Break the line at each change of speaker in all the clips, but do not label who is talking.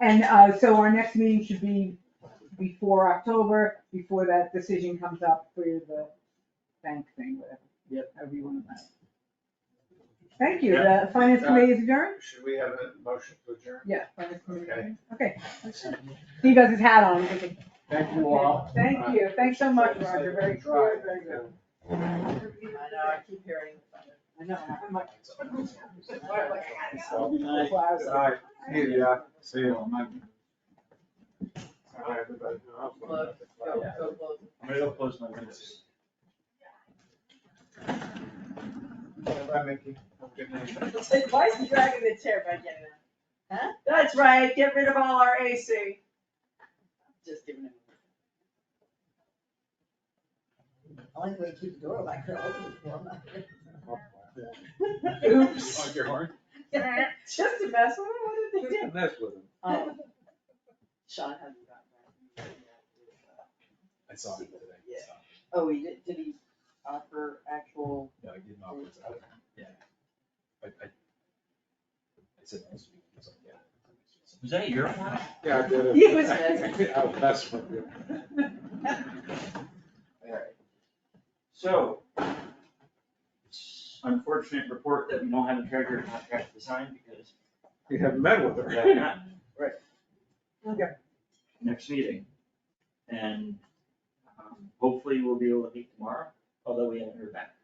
And, uh, so our next meeting should be before October, before that decision comes up for the bank thing, whatever.
Yep.
However you want to. Thank you,
Yeah.
the finance committee is adjourned?
Should we have a motion to adjourn?
Yeah. finance committee is adjourned. Okay,
Thank
Steve has his hat on, we can-
you all.
thank you, thanks so much, Roger, very
Try.
good, very good.
I know, I keep hearing it.
I know, I'm like,
So, good night.
wow, so-
Aye. See ya.
See you all, my.
Aye, everybody.
Look, go, go, go.
I'm gonna go close my windows.
Bye, Mickey. Have a good night.
It's like, why is he dragging the chair back in there? Huh? That's right, get rid of all our AC. Just giving him. Only way to keep the door open, I could open it for him. Oops.
your horn?
Just a mess, what, what did they do?
Mess with him.
Oh. Sean hasn't gotten back.
I saw him today. so,
Oh, he did, did he offer actual?
No, I did not. was out. Yeah. I, I. I said, I was, I was like, yeah.
Was that your one?
Yeah, I did it.
He was
I was messing with you.
So, it's unfortunate report that we don't have a treasurer contract to sign because
You haven't met with
we have
her.
not
Okay.
next meeting. And um, hopefully we'll be able to meet tomorrow, although we haven't heard back.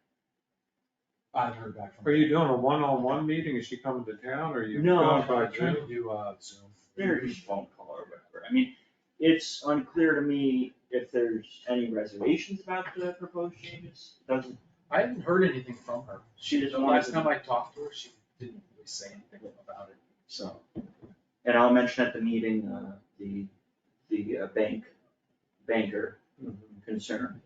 I've heard back from.
Are you doing a one-on-one meeting? Is she coming to town or you?
No,
going
I
by
tried
Zoom?
to do, uh, Zoom.
They're just phone call or whatever. I mean, it's unclear to me if there's any reservations about the proposed changes. Doesn't,
I haven't heard anything from her.
she
The
doesn't want
last
to.
time I talked to her, she didn't really say anything about it, so.
And I'll mention at the meeting, uh, the, the uh, bank, banker
Mm-hmm.
concern.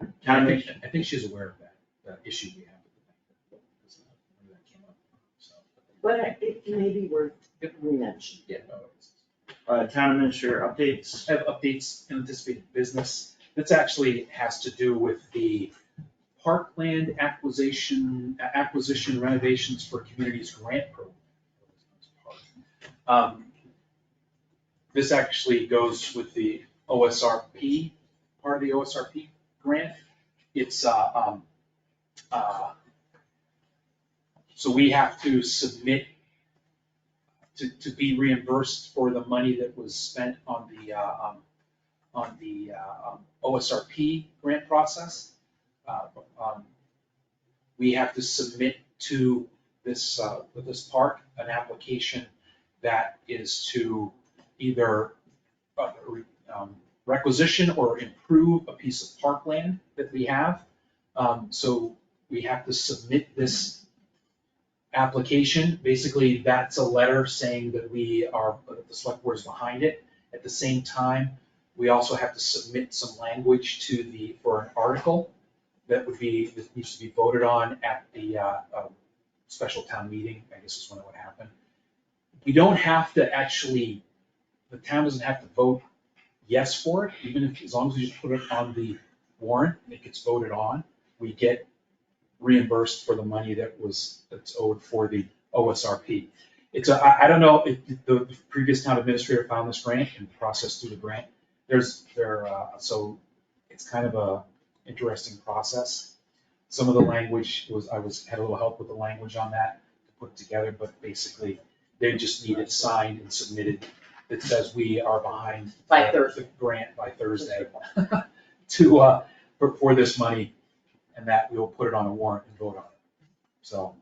I
Town
think,
admin-
I think she's aware of that, that issue we have with the bank. Because that- when that came up, so.
But I- it may be worth re-mentioning.
Yeah, no, it's-
uh, town administrator updates.
I have updates in anticipated business. That's actually has to do with the parkland acquisition, acquisition renovations for communities grant program. Um, This actually goes with the OSRP, part of the OSRP grant. It's, uh, um, uh, so we have to submit to, to be reimbursed for the money that was spent on the, uh, um, on the, uh, um, OSRP grant process. Uh, um, We have to submit to this, uh, this park, an application that is to either uh, re- um, requisition or improve a piece of parkland that we have. Um, so we have to submit this application, basically that's a letter saying that we are, that the select board is behind it. At the same time, we also have to submit some language to the, for an article that would be, that needs to be voted on at the, uh, um, special town meeting, I guess is when it would happen. We don't have to actually, the town doesn't have to vote yes for it, even if, as long as we just put it on the warrant and it gets voted on, we get reimbursed for the money that was, that's owed for the OSRP. It's, a- I, I don't know, if the the previous town administrator found this grant and processed through the grant. There's, there, uh, so it's kind of a interesting process. Some of the language was, I was, had a little help with the language on that to put together, but basically they just need it signed and submitted that says we are behind.
By Thursday.
the Grant by Thursday to, uh, for, for this money and that we will put it on a warrant and vote on it. So,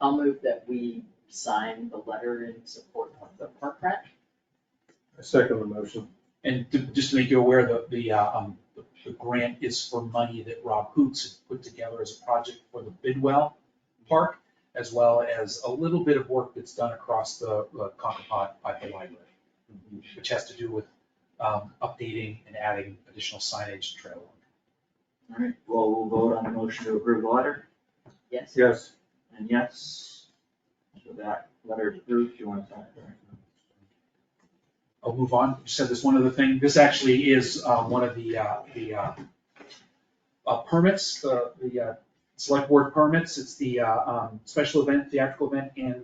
I'll move that we sign the letter in support of the park rat.
I second the motion.
and to- just to make you aware, the, the, uh, um, the- the grant is for money that Rob Hoots had put together as a project for the Bidwell Park, as well as a little bit of work that's done across the uh, Concopod by the library, which has to do with, um, updating and adding additional signage and trail.
All right, well, we'll vote on the motion to approve the letter,
Yes,
Yes.
and yes. So that letter is approved, you want to sign it?
I'll move on, just said this one other thing, this actually is, uh, one of the, uh, the, uh, uh, permits, the, the, uh, select board permits, it's the, uh, um, special event, theatrical event and